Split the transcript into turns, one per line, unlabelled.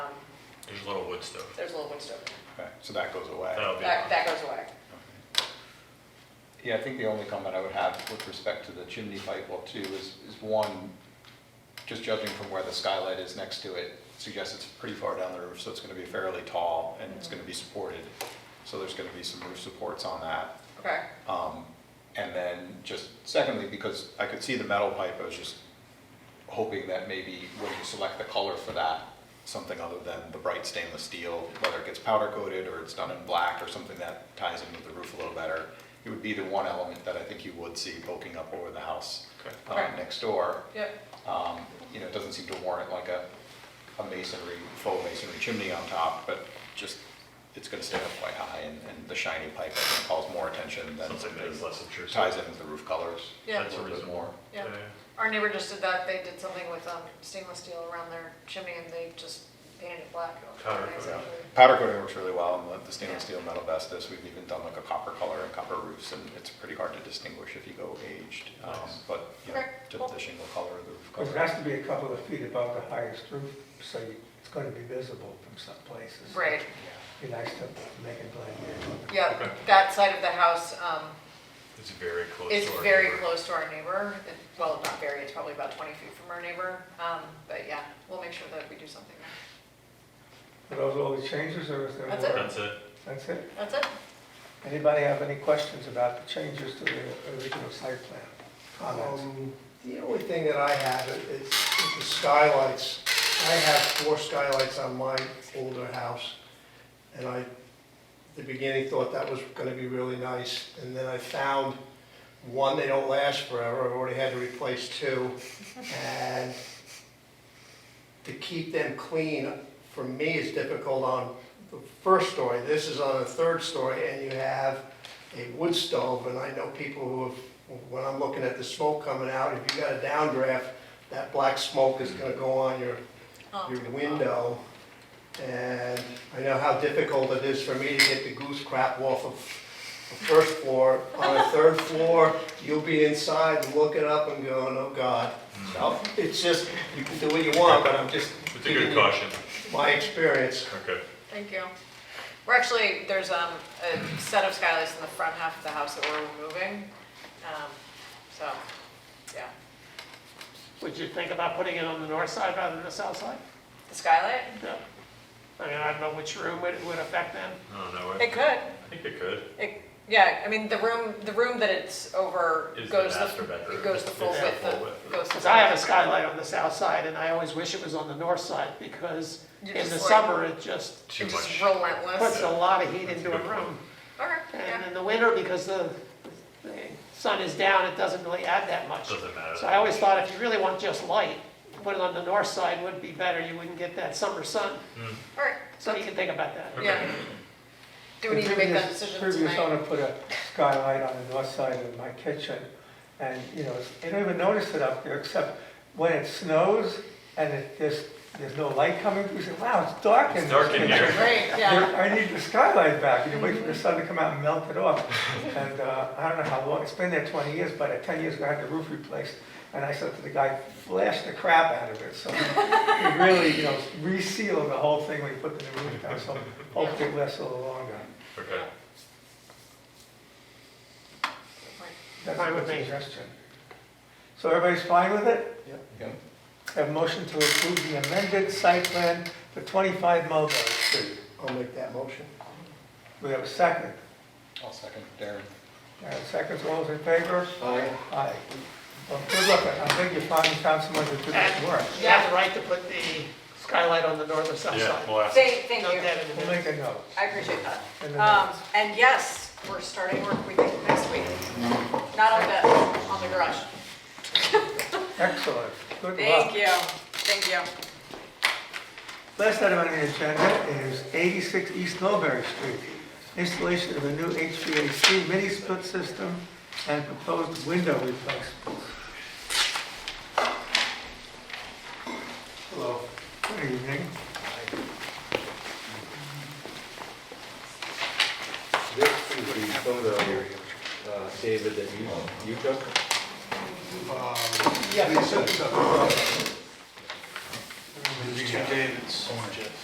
There's Little Woodstone.
Um, There's Little Woodstone.
Okay, so that goes away.
That'll be,
That, that goes away.
Yeah, I think the only comment I would have with respect to the chimney pipe well too is, is one, just judging from where the skylight is next to it, suggests it's pretty far down the roof, so it's gonna be fairly tall and it's gonna be supported. So there's gonna be some roof supports on that.
Okay,
Um, and then just secondly, because I could see the metal pipe, I was just hoping that maybe when you select the color for that, something other than the bright stainless steel, whether it gets powder coated or it's done in black or something that ties in with the roof a little better, it would be the one element that I think you would see poking up over the house
Okay.
um,
Okay.
next door.
yep,
Um, you know, it doesn't seem to warrant like a, a masonry, full masonry chimney on top, but just, it's gonna stay up quite high and, and the shiny pipe, I think, calls more attention than.
something that is less intrusive.
Ties in with the roof colors.
Yeah.
That's
A little bit
reasonable.
more.
yeah. Our neighbor just did that, they did something with um, stainless steel around their chimney and they just painted it black.
Powder coat.
Yeah.
Exactly.
Powder coating works really well, and the- the stainless
Yeah.
steel metal vestas, we've even done like a copper color and copper roofs, and it's pretty hard to distinguish if you go aged. Um,
Nice.
But, you know,
Okay,
to
cool.
the shingle color of the roof
Because it
color.
has to be a couple of feet above the highest roof, so you- it's going to be visible from some places.
Right,
Be nice to make it blend in.
yeah,
Okay.
that side of the house um,
It's very close to
is
our
very
neighbor.
close to our neighbor. It- Well, not very, it's probably about 20 feet from our neighbor. Um, But yeah, we'll make sure that we do something.
Are those all the changes, or is there more?
That's it.
That's it.
That's it?
That's it.
Anybody have any questions about the changes to the original site plan? Comments?
Um, The only thing that I have is is the skylights. I have four skylights on my older house, and I, at the beginning, thought that was gonna be really nice, and then I found, one, they don't last forever, I've already had to replace two, and to keep them clean, for me, is difficult on the first story. This is on the third story, and you have a wood stove, and I know people who have when I'm looking at the smoke coming out, if you got a downdraft, that black smoke is gonna go on your,
Oh.
your window. And I know how difficult it is for me to get the goose crap off of the first floor. On the third floor, you'll be inside looking up and going, oh God. So it's just, you can do what you want, but I'm just
It's a
giving
good
you
caution.
my experience.
Okay.
Thank you. We're actually, there's um, a set of skylights in the front half of the house that we're removing. Um, So, yeah.
Would you think about putting it on the north side rather than the south side?
The skylight?
No. I mean, I don't know which room it would affect them.
I don't know. I
It could.
I think it could.
It, yeah, I mean, the room, the room that it's over
Is the
goes
master
the,
bedroom.
it goes the full
It's the
width
full width.
of, goes the.
Because I have a skylight on the south side, and I always wish it was on the north side, because
You're
in
just
the
like-
summer, it just
Too
It's just
much.
relentless.
puts a lot of heat
That's a
into a
good
room.
Okay,
And
yeah,
in the winter, because the, the sun is down, it doesn't really add that much.
Doesn't matter.
So I always thought if you really want just light, put it on the north side would be better, you wouldn't get that summer sun.
Hmm.
all right,
So you can think about that.
yeah. Do we need to make that
The previous-
decision
Previous
tonight?
owner put a skylight on the north side of my kitchen, and, you know, you don't even notice it up there, except when it snows and it, there's, there's no light coming through, you say, wow, it's dark in
It's
this
dark in
kitchen."
here.
Great, yeah,
I need the skylight back, you wait for the sun to come out and melt it off. And uh, I don't know how long, it's been there 20 years, but at 10 years ago, I had the roof replaced, and I said to the guy, flash the crap out of it, so he really, you know, resealed the whole thing when he put the new roof down, so hopefully it lasts a little longer.
Okay.
That's a
Fine
good
with me.
suggestion. So everybody's fine with it?
Yeah.
Have a motion to approve the amended site plan for 25 Mulberry Street.
I'll make that motion.
We have a second.
I'll second Darren.
Uh, Seconds, all those in favor?
Aye.
Aye. Well, good luck, I think you finally found someone to do this work.
You have the right to put the skylight on the north or south
Yeah,
side.
we'll ask.
thank, thank
Note
you,
that in the
We'll
minutes.
make a note. uh,
I appreciate that.
in the
Um,
notes.
and yes, we're starting work, we think, next week, not on the, on the garage.
Excellent, good
Um, Thank
luck.
you, thank you.
Last item on the agenda is 86 East Mulberry Street. Installation of a new HVAC mini split system and proposed window replacement.
Hello.
Good evening.
This is the photo, uh, David, that you, you took?
Yeah, we took some.
Two Davids.